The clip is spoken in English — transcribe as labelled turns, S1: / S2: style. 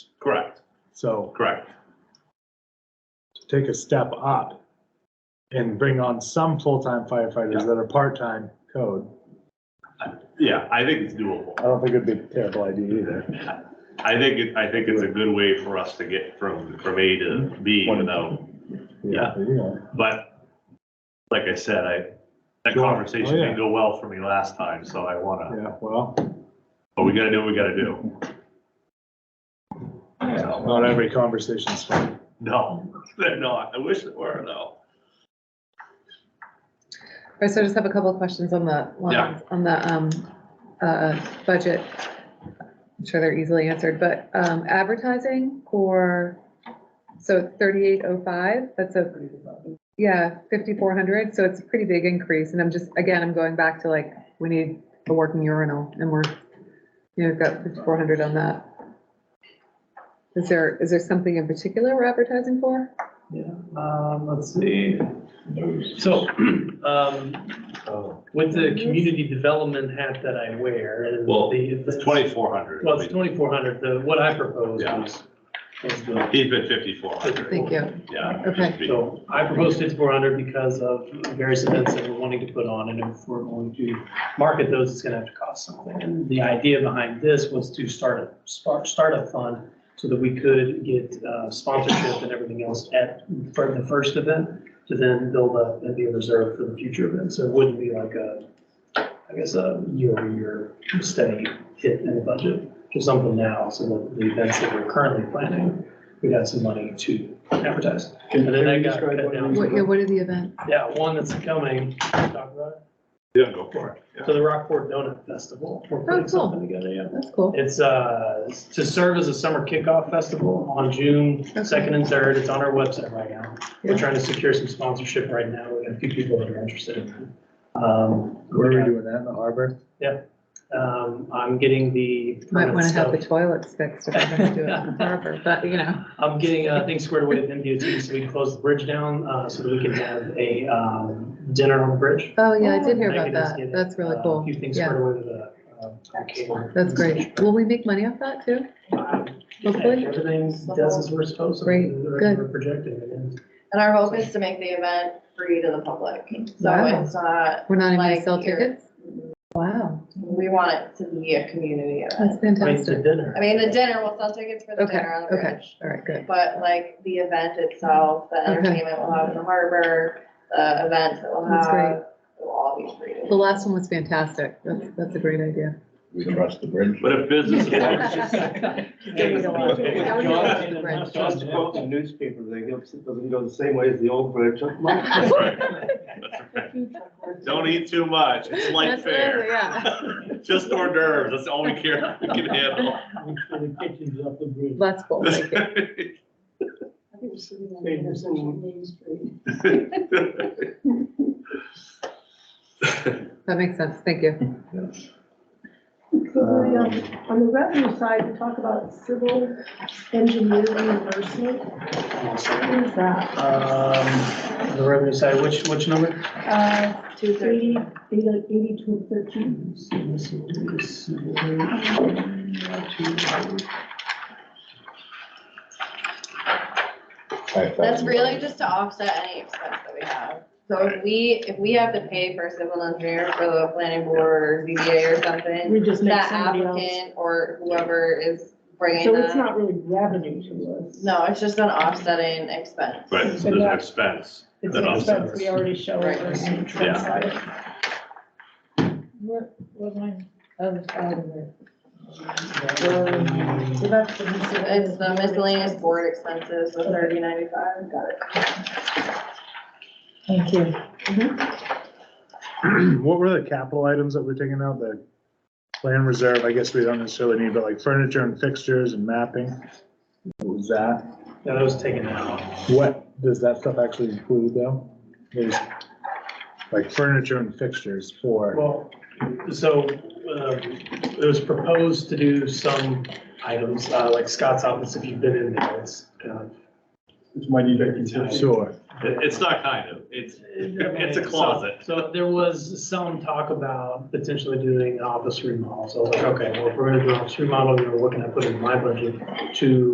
S1: Correct,
S2: So
S1: correct.
S2: to take a step up and bring on some full-time firefighters that are part-time code.
S1: Yeah, I think it's doable.
S2: I don't think it'd be a terrible idea either.
S1: I think, it- I think it's a good way for us to get from, from A to B without, Yeah.
S2: Yeah.
S1: but like I said, I, that
S2: Sure. Oh,
S1: conversation
S2: yeah.
S1: didn't go well for me last time, so I wanna,
S2: Yeah, well,
S1: but we gotta do what we gotta do. So,
S2: not every conversation's fun.
S1: No, they're not. I wish it were though.
S3: All right, so I just have a couple of questions on the,
S1: Yeah.
S3: lines- on the um, uh, budget. I'm sure they're easily answered, but um, advertising for, so 3805, that's a, yeah, 5,400, so it's a pretty big increase. And I'm just, again, I'm going back to like, we need a working urinal and we're, you know, we've got 5,400 on that. Is there, is there something in particular we're advertising for?
S4: Yeah, um, let's see. So, um,
S1: Oh.
S4: with the community development hat that I wear is
S1: Well,
S4: the.
S1: It's twenty-four hundred.
S4: Well, it's twenty-four hundred, the, what I proposed
S1: Yeah.
S4: was, was the,
S1: He's been fifty-four hundred,
S3: Thank you.
S1: yeah.
S3: Okay.
S1: just be-
S4: so I proposed fifty-four hundred because of various events that we're wanting to put on, and if we're going to market those, it's gonna have to cost something. And the idea behind this was to start a, start, start a fund so that we could get uh, sponsorship and everything else at, for the first event, to then build up and be a reserve for the future events. So it wouldn't be like a, I guess, a year-over-year steady hit in the budget, just something now, so that the events that we're currently planning, we have some money to advertise. And then that got cut
S3: What, yeah,
S4: down.
S3: what are the events?
S4: Yeah, one that's coming, talk about it.
S1: Yeah, go for it. Yeah.
S4: so the Rockport Donut Festival, we're
S3: Oh, cool.
S4: putting something together, yeah.
S3: That's cool.
S4: It's uh, to serve as a summer kickoff festival on June second and third. It's on our website right now.
S3: Yeah.
S4: We're trying to secure some sponsorship right now. We have a few people that are interested in it. Um,
S2: Where are we doing that in the harbor?
S4: um, I'm getting the.
S3: Might want to have the
S4: stuff.
S3: toilets fixed if I'm gonna do it in the harbor, but you know.
S4: I'm getting uh, things squared away with MDOT so we can close the bridge down uh, so that we can have a um, dinner on the bridge.
S3: Oh, yeah, I did hear about
S4: Megan is
S3: that.
S4: getting,
S3: That's really
S4: uh, A
S3: cool.
S4: few things
S3: Yeah,
S4: squared away with the. uh, cable.
S3: that's great. Will we make money off that too? Hopefully.
S4: Everything does as we're supposed to.
S3: Great, good.
S4: We're projecting it in.
S5: And our hope is to make the event free to the public, so
S3: Wow.
S5: it's not,
S3: We're not even gonna
S5: Like
S3: sell
S5: here.
S3: tickets? Wow,
S5: we want it to be a community
S3: that's
S5: event.
S4: Right, the
S3: fantastic.
S4: dinner.
S5: I mean, the dinner, we'll sell tickets for the
S3: Okay,
S5: dinner on the
S3: okay.
S5: bridge.
S3: All right, good.
S5: But like the event itself, the
S3: Okay.
S5: entertainment we'll have in the harbor, the events that we'll
S3: That's great.
S5: have, will all be free.
S3: The last one was fantastic. That's, that's a great idea.
S6: We trust the bridge.
S1: But if business is
S7: Just quote the newspaper, they go, it doesn't go the same way as the old bridge.
S1: That's right. That's right. Don't eat too much, it's light
S3: That's
S1: fare.
S3: really- yeah.
S1: Just hors d'oeuvres, that's all we care, we can handle.
S3: That's cool. Thank you. That makes sense. Thank you.
S8: Could we, um, On the revenue side, we talk about civil engineer reimbursement. What is that?
S4: Um, the revenue side, which, which number?
S8: Uh,
S5: Two thirty.
S8: Eighty, eighty to thirteen.
S5: That's really just to offset any expense that we have. So if we, if we have to pay for a civil engineer for the planning board or ZBA or something,
S8: We just make
S5: that
S8: somebody else.
S5: applicant or whoever is bringing
S8: So it's
S5: that.
S8: not really revenue to us.
S5: No, it's just an offsetting expense.
S1: Right, so there's an expense.
S8: It's
S1: That
S8: an
S1: offsets.
S8: expense we already show.
S5: Right.
S8: Yeah.
S9: What, what line? Other side of it.
S4: Um,
S9: So that's the miscellaneous.
S5: It's the miscellaneous board expenses, the thirty ninety-five, got it.
S9: Thank you.
S2: What were the capital items that we're taking out? The land reserve, I guess we don't necessarily need, but like furniture and fixtures and mapping? What was that?
S4: That was taken out.
S2: What does that stuff actually include though? There's like furniture and fixtures for,
S4: Well, so, um, it was proposed to do some items, uh, like Scott's office, if you've been in there, it's kind of.
S7: It's my
S2: sure.
S1: It- It's not kind of, it's, it's a closet.
S4: So there was some talk about potentially doing an office remodel, so I was like, okay, well, if we're gonna do an office remodel, we're looking at putting my budget to